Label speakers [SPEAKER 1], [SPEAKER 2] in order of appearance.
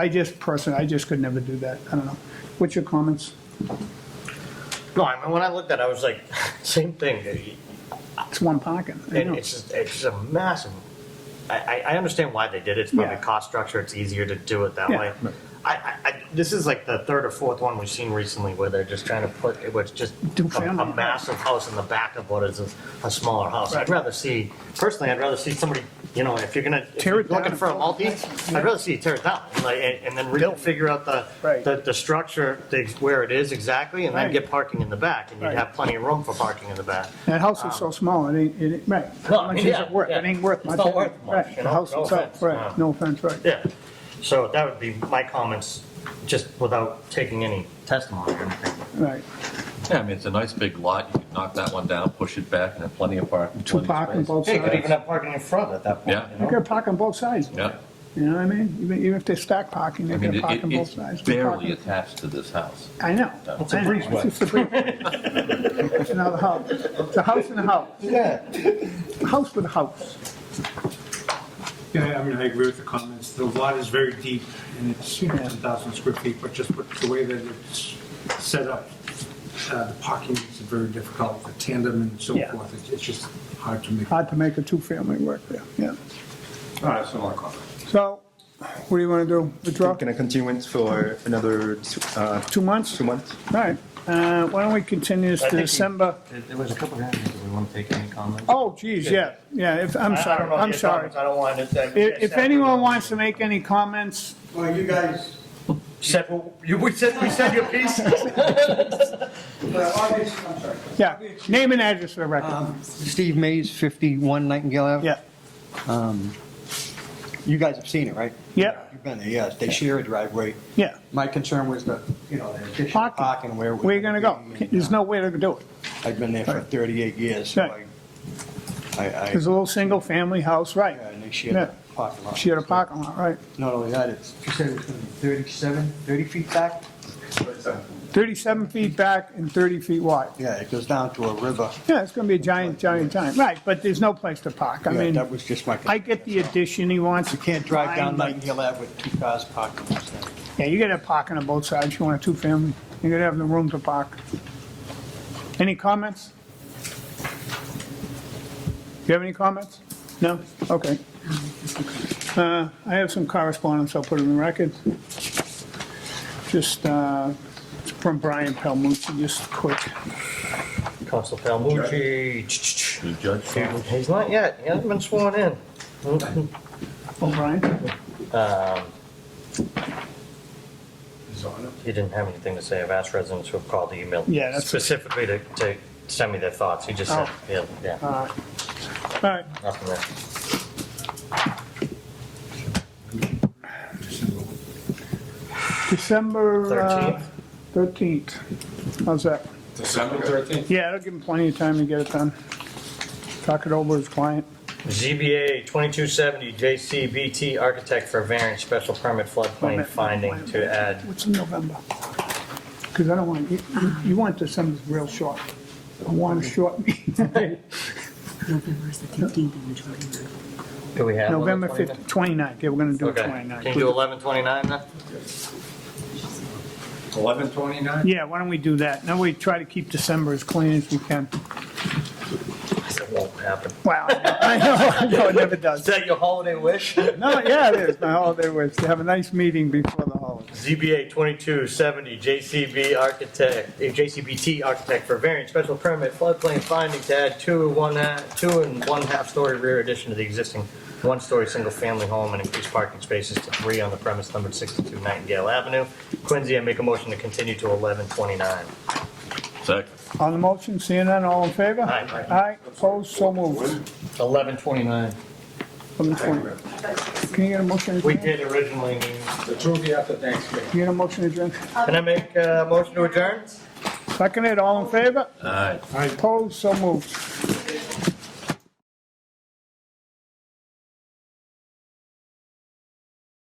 [SPEAKER 1] I just personally, I just could never do that. I don't know. What's your comments?
[SPEAKER 2] No, I mean, when I looked at it, I was like, same thing.
[SPEAKER 1] It's one parking. I
[SPEAKER 2] And
[SPEAKER 1] know.
[SPEAKER 2] it's just, it's just a massive, I, I, I understand why they did it. It's probably
[SPEAKER 1] Yeah.
[SPEAKER 2] cost structure. It's easier to do it that
[SPEAKER 1] Yeah.
[SPEAKER 2] way. I, I, I, this is like the third or fourth one we've seen recently where they're just trying to put, it was just a,
[SPEAKER 1] Do family.
[SPEAKER 2] a massive house in the back of what is a, a smaller house.
[SPEAKER 1] Right.
[SPEAKER 2] I'd rather see, personally, I'd rather see somebody, you know, if you're gonna, if
[SPEAKER 1] Tear
[SPEAKER 2] you're
[SPEAKER 1] it down
[SPEAKER 2] looking
[SPEAKER 1] and
[SPEAKER 2] for a
[SPEAKER 1] build
[SPEAKER 2] multi,
[SPEAKER 1] it back.
[SPEAKER 2] I'd rather see you tear it down, like, and, and then refigure out the,
[SPEAKER 1] Right.
[SPEAKER 2] the, the structure, the- where it is exactly, and then
[SPEAKER 1] Right.
[SPEAKER 2] get parking in the back, and you'd
[SPEAKER 1] Right.
[SPEAKER 2] have plenty of room for parking in the back.
[SPEAKER 1] That house is so small, it ain't, it ain't, right.
[SPEAKER 2] No,
[SPEAKER 1] How much is
[SPEAKER 2] Um, yeah,
[SPEAKER 1] it worth? It
[SPEAKER 2] yeah.
[SPEAKER 1] ain't worth
[SPEAKER 2] It's
[SPEAKER 1] much.
[SPEAKER 2] not
[SPEAKER 1] is it?
[SPEAKER 2] worth much,
[SPEAKER 1] Right,
[SPEAKER 2] you
[SPEAKER 1] the
[SPEAKER 2] know?
[SPEAKER 1] house
[SPEAKER 2] No
[SPEAKER 1] itself,
[SPEAKER 2] offense,
[SPEAKER 1] right,
[SPEAKER 2] no.
[SPEAKER 1] no offense, right.
[SPEAKER 2] Yeah, so that would be my comments, just without taking any testimony or anything.
[SPEAKER 1] Right,
[SPEAKER 3] Yeah, I mean, it's a nice big lot, you could knock that one down, push it back, and have plenty of parking,
[SPEAKER 1] two
[SPEAKER 3] plenty of
[SPEAKER 1] parking
[SPEAKER 3] space.
[SPEAKER 1] both
[SPEAKER 2] Hey, you could
[SPEAKER 1] sides.
[SPEAKER 2] even have parking in front at that point,
[SPEAKER 3] Yeah.
[SPEAKER 2] you
[SPEAKER 1] You
[SPEAKER 2] know?
[SPEAKER 1] could park on both sides.
[SPEAKER 3] Yeah,
[SPEAKER 1] You know what I mean? Even, even if they stack parking,
[SPEAKER 3] I
[SPEAKER 1] they
[SPEAKER 3] mean,
[SPEAKER 1] can
[SPEAKER 3] it-
[SPEAKER 1] park on
[SPEAKER 3] it-
[SPEAKER 1] both
[SPEAKER 3] it's
[SPEAKER 1] sides. Two
[SPEAKER 3] barely
[SPEAKER 1] parking-
[SPEAKER 3] attached to this house.
[SPEAKER 1] I know.
[SPEAKER 3] It's
[SPEAKER 2] a
[SPEAKER 1] I know.
[SPEAKER 2] breezeway.
[SPEAKER 1] It's just a breezeway. It's another house. It's a house and a house.
[SPEAKER 2] Yeah.
[SPEAKER 1] House with a house.
[SPEAKER 4] Yeah, I mean, I agree with the comments. The lot is very deep, and it's, you know, 10,000 square feet, but just with the way that it's set up, uh, the parking is very difficult, the tandem and so
[SPEAKER 1] Yeah.
[SPEAKER 4] forth, It's- it's just hard to make.
[SPEAKER 1] Hard to make a two-family work there, yeah.
[SPEAKER 4] That's all I comment.
[SPEAKER 1] So, what do you want to do? Withdraw?
[SPEAKER 5] Can I continue it for another uh,
[SPEAKER 1] Two months?
[SPEAKER 5] two months?
[SPEAKER 1] All right, uh, why don't we continue this to
[SPEAKER 2] I think you-
[SPEAKER 1] December?
[SPEAKER 2] There was a couple of hands, we want to take any comments?
[SPEAKER 1] Oh, geez, yeah, yeah, if, I'm
[SPEAKER 2] I- I don't
[SPEAKER 1] sorry,
[SPEAKER 2] know
[SPEAKER 1] I'm
[SPEAKER 2] your
[SPEAKER 1] sorry.
[SPEAKER 2] comments, I don't want to. I-
[SPEAKER 1] If, if anyone wants to make any comments,
[SPEAKER 6] Well, you guys,
[SPEAKER 2] Said, well, you, we said, we said your piece.
[SPEAKER 6] uh, obviously, I'm sorry.
[SPEAKER 1] yeah, name and address for the record,
[SPEAKER 6] Um, Steve Mays, 51 Nightingale Ave.
[SPEAKER 1] yeah,
[SPEAKER 6] You guys have seen it, right?
[SPEAKER 1] Yeah.
[SPEAKER 6] You've been there, yes. They share a driveway.
[SPEAKER 1] yeah.
[SPEAKER 6] My concern was the, you know, the addition of
[SPEAKER 1] Parking.
[SPEAKER 6] parking where. it was
[SPEAKER 1] Where you gonna go?
[SPEAKER 6] be, and,
[SPEAKER 1] There's
[SPEAKER 6] uh,
[SPEAKER 1] no way to do it.
[SPEAKER 6] I've been there for 38 years, so I,
[SPEAKER 1] Right.
[SPEAKER 6] I, I-
[SPEAKER 1] There's a little single-family house, right?
[SPEAKER 6] and they share
[SPEAKER 1] Yeah.
[SPEAKER 6] the parking lot.
[SPEAKER 1] She had a parking lot, right?
[SPEAKER 6] Not only that, it's, you said it's gonna be 37, 30 feet back?
[SPEAKER 1] Thirty-seven feet back and thirty feet wide.
[SPEAKER 6] Yeah, it goes down to a river.
[SPEAKER 1] Yeah, it's gonna be a giant, giant giant, right, but there's no place to park, I
[SPEAKER 6] Yeah,
[SPEAKER 1] mean,
[SPEAKER 6] That was just my.
[SPEAKER 1] I get the addition he wants.
[SPEAKER 6] You can't drive
[SPEAKER 1] Fine,
[SPEAKER 6] down
[SPEAKER 1] but-
[SPEAKER 6] Nightingale Ave with two cars parked on one side.
[SPEAKER 1] Yeah, you gotta have parking on both sides, you want a two-family, you gotta have the room to park. Any comments? You have any comments? No? Okay. Uh, I have some correspondence I'll put in the record. Just, uh, from Brian Palmucci, just quick.
[SPEAKER 2] Council Palmucci.
[SPEAKER 3] The judge found
[SPEAKER 2] He's not yet, he hasn't been sworn in.
[SPEAKER 1] Oh, Brian?
[SPEAKER 2] He didn't have anything to say. I've asked residents who have called the email
[SPEAKER 1] Yeah, that's-
[SPEAKER 2] specifically to, to send me their thoughts. He just said,
[SPEAKER 1] Oh.
[SPEAKER 2] yeah, yeah,
[SPEAKER 1] All right,
[SPEAKER 2] nothing there.
[SPEAKER 1] December uh,
[SPEAKER 2] 13th.
[SPEAKER 1] 13th. How's that?
[SPEAKER 7] December 13th?
[SPEAKER 1] Yeah, it'll give him plenty of time to get it done. Talk it over with his client.
[SPEAKER 2] ZBA 2270 JCBT Architect for variance special permit floodplain finding to add,
[SPEAKER 1] What's in November? Because I don't want, you, you- you want December real short. I want a short meeting.
[SPEAKER 8] November is the 15th and the 29th.
[SPEAKER 2] do we have?
[SPEAKER 1] November
[SPEAKER 2] 1129?
[SPEAKER 1] 5th, 29th, yeah, we're gonna do it
[SPEAKER 2] Okay, can
[SPEAKER 1] 29th.
[SPEAKER 2] you do 1129 then?
[SPEAKER 7] 1129?
[SPEAKER 1] Yeah, why don't we do that? Now we try to keep December as clean as we can.
[SPEAKER 2] That won't happen.
[SPEAKER 1] Wow, I know, I know, it never
[SPEAKER 2] Is
[SPEAKER 1] does.
[SPEAKER 2] that your holiday wish?
[SPEAKER 1] No, yeah, it is, my holiday was to have a nice meeting before the holiday.
[SPEAKER 2] ZBA 2270 JCB Architect, eh, JCBT Architect for variance special permit floodplain finding to add two, one, ha- two and one half story rear addition to the existing one-story single-family home and increase parking spaces to three on the premise numbered 62 Nightingale Avenue. Quincy, I make a motion to continue to 1129.
[SPEAKER 3] Second.
[SPEAKER 1] On the motion, seeing none, all in favor?
[SPEAKER 2] Aye.
[SPEAKER 1] Aye, opposed, so moved.
[SPEAKER 2] 1129.
[SPEAKER 1] From the twenty. Can you get a motion
[SPEAKER 2] We
[SPEAKER 1] adjourned?
[SPEAKER 2] did originally,
[SPEAKER 7] The Tuesday after Thanksgiving.
[SPEAKER 1] Can you get a motion adjourned?
[SPEAKER 2] can I make a motion to adjourn?
[SPEAKER 1] Second it, all in favor?
[SPEAKER 3] All right.
[SPEAKER 1] Opposed, so moved.